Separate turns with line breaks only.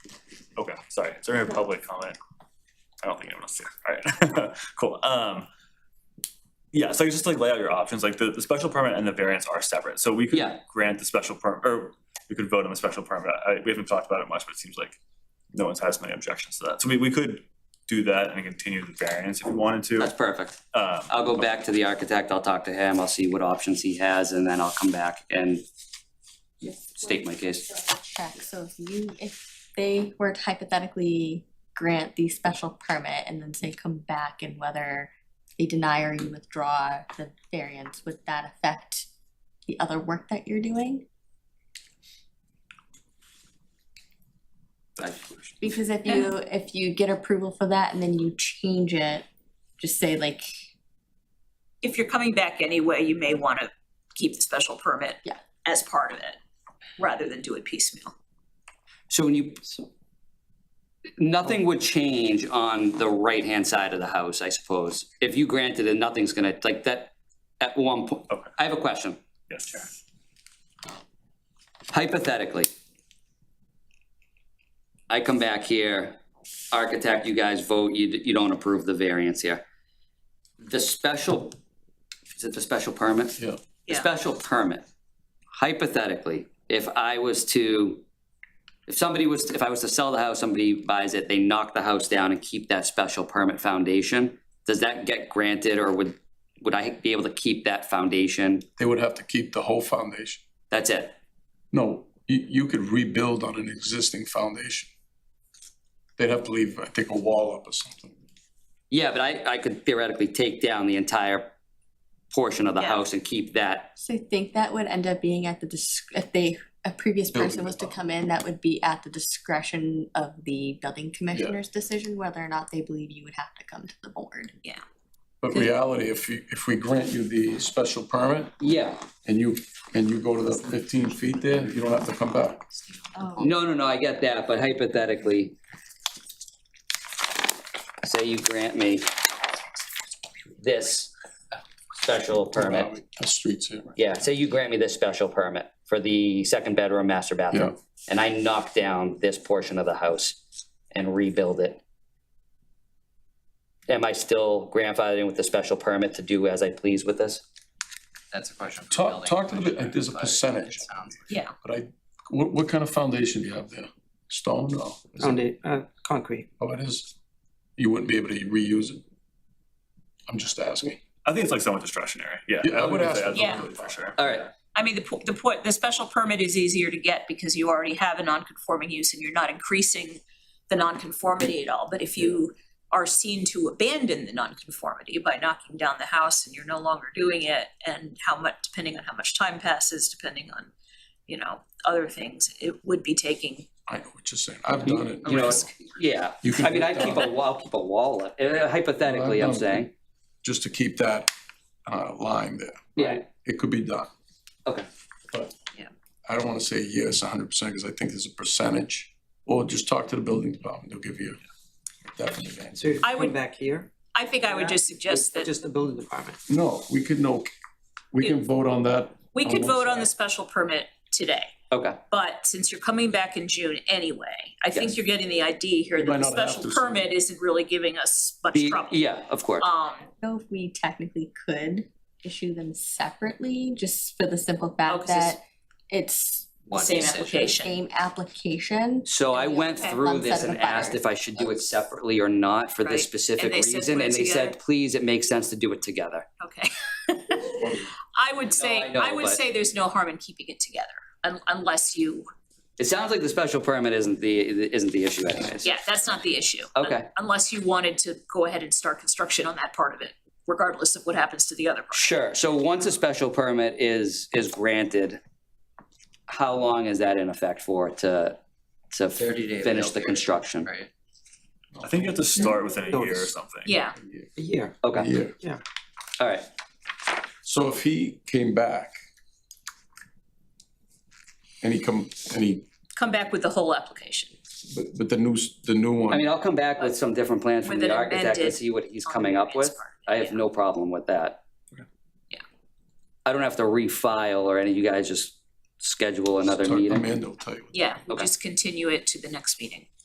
Sorry, it's a public comment. I don't think anyone else did. All right, cool. Um, yeah, so I guess just like lay out your options, like the, the special permit and the variance are separate. So we could
Yeah.
grant the special permit, or we could vote on the special permit. I, we haven't talked about it much, but it seems like no one's had so many objections to that. So we, we could do that and continue the variance if we wanted to.
That's perfect.
Um,
I'll go back to the architect, I'll talk to him, I'll see what options he has, and then I'll come back and state my case.
Check, so if you, if they were to hypothetically grant the special permit and then say come back and whether they deny or you withdraw the variance, would that affect the other work that you're doing?
I-
Because if you, if you get approval for that and then you change it, just say like,
if you're coming back anyway, you may want to keep the special permit
Yeah.
as part of it, rather than do it piecemeal.
So when you, nothing would change on the right-hand side of the house, I suppose. If you granted it, nothing's gonna, like that, at one point,
Okay.
I have a question.
yes, Chair.
Hypothetically, I come back here, architect, you guys vote, you, you don't approve the variance here. The special, is it the special permit?
Yeah.
The
Yeah.
special permit, hypothetically, if I was to, if somebody was, if I was to sell the house, somebody buys it, they knock the house down and keep that special permit foundation, does that get granted or would, would I be able to keep that foundation?
They would have to keep the whole foundation.
That's it?
No, you, you could rebuild on an existing foundation. They'd have to leave, I think, a wall up or something.
Yeah, but I, I could theoretically take down the entire portion of the
Yeah.
house and keep that.
so I think that would end up being at the, dis- if they, a previous
Building
person was to
department.
come in, that would be at the discretion of the building commissioner's decision whether or not they believe you would have to come to the board.
But reality, if you, if we grant you the special permit
Yeah.
and you, and you go to the fifteen feet there, you don't have to come back.
Oh.
No, no, no, I get that, but hypothetically, say you grant me this special permit.
The streets here.
Yeah, say you grant me this special permit for the second bedroom master bathroom. And I knock down this portion of the house and rebuild it. Am I still grandfathered in with the special permit to do as I please with this?
That's a question. for the
Talk,
building
talk to the,
commissioner,
there's a
but it
percentage,
sounds-
Yeah,
but I, what, what kind of foundation do you have there? Stone? No. Is it-
Foundation, uh, concrete.
Oh, it is. You wouldn't be able to reuse it. I'm just asking.
I think it's like somewhat discretionary. Yeah.
Yeah, I would ask-
Absolutely, For sure.
All right,
I mean, the, po- the point, the special permit is easier to get because you already have a non-conforming use and you're not increasing the non-conformity at all, but if you are seen to abandon the non-conformity by knocking down the house and you're no longer doing it, and how much, depending on how much time passes, depending on, you know, other things, it would be taking
I know what you're saying. I've done it.
a
You know,
risk.
yeah.
You can
I mean,
do
I
that.
keep a wall, I'll keep a wall, up. Uh, hypothetically, I'm saying.
Just to keep that uh, line there.
Yeah.
It could be done.
Okay.
But
Yeah.
I don't want to say yes hundred percent because I think there's a percentage. Or just talk to the building department. They'll give you a definite answer.
So you
I
come
would-
back here?
I think I would just suggest that
Just the building department.
No, we could no, we can vote on that.
we
on
could
one
vote on
side.
the special permit today.
Okay,
But since you're coming back in June anyway, I think
Yes.
you're getting the idea here
We might
that the
not have
special
to
permit isn't really giving us much
the, e-
trouble.
yeah, of course.
Um,
know if we technically could issue them separately, just for the simple
Oh,
fact
'cause it's
that it's
One
Same
decision.
application.
same application.
So I
Yeah,
went
okay.
through
One
this
set
and
of
asked if I should do it separately or not for
Right.
this specific
they said
reason,
put it
and they said,
together.
please, it makes sense to do it together.
okay. I would
I
say,
know,
I would
but-
say there's no harm in keeping it together, un- unless you,
It sounds like the special permit isn't the, isn't the issue anyways.
yeah, that's not the issue.
Okay.
Unless you wanted to go ahead and start construction on that part of it, regardless of what happens to the other part.
Sure, so once a special permit is, is granted, how long is that in effect for to, to
Thirty day.
finish the
appeal period,
construction?
Right.
I think you have to start within a year or
Notice.
something.
Yeah,
A year.
Okay,
Yeah.
all right,
So if he came back and he come, and he,
come back with the whole application.
but, but the new, s- the new
I mean,
one,
I'll come back with some different plans from
With
the
an
architect and
amended-
see what he's
on the
coming up
variance
with.
part,
I have
yeah.
no problem with that.
Yeah.
I don't have to refile or any, you guys just schedule another
Talk to
meeting.
Amanda will tell you.
Yeah, we'll
Okay.
just continue it to the next meeting.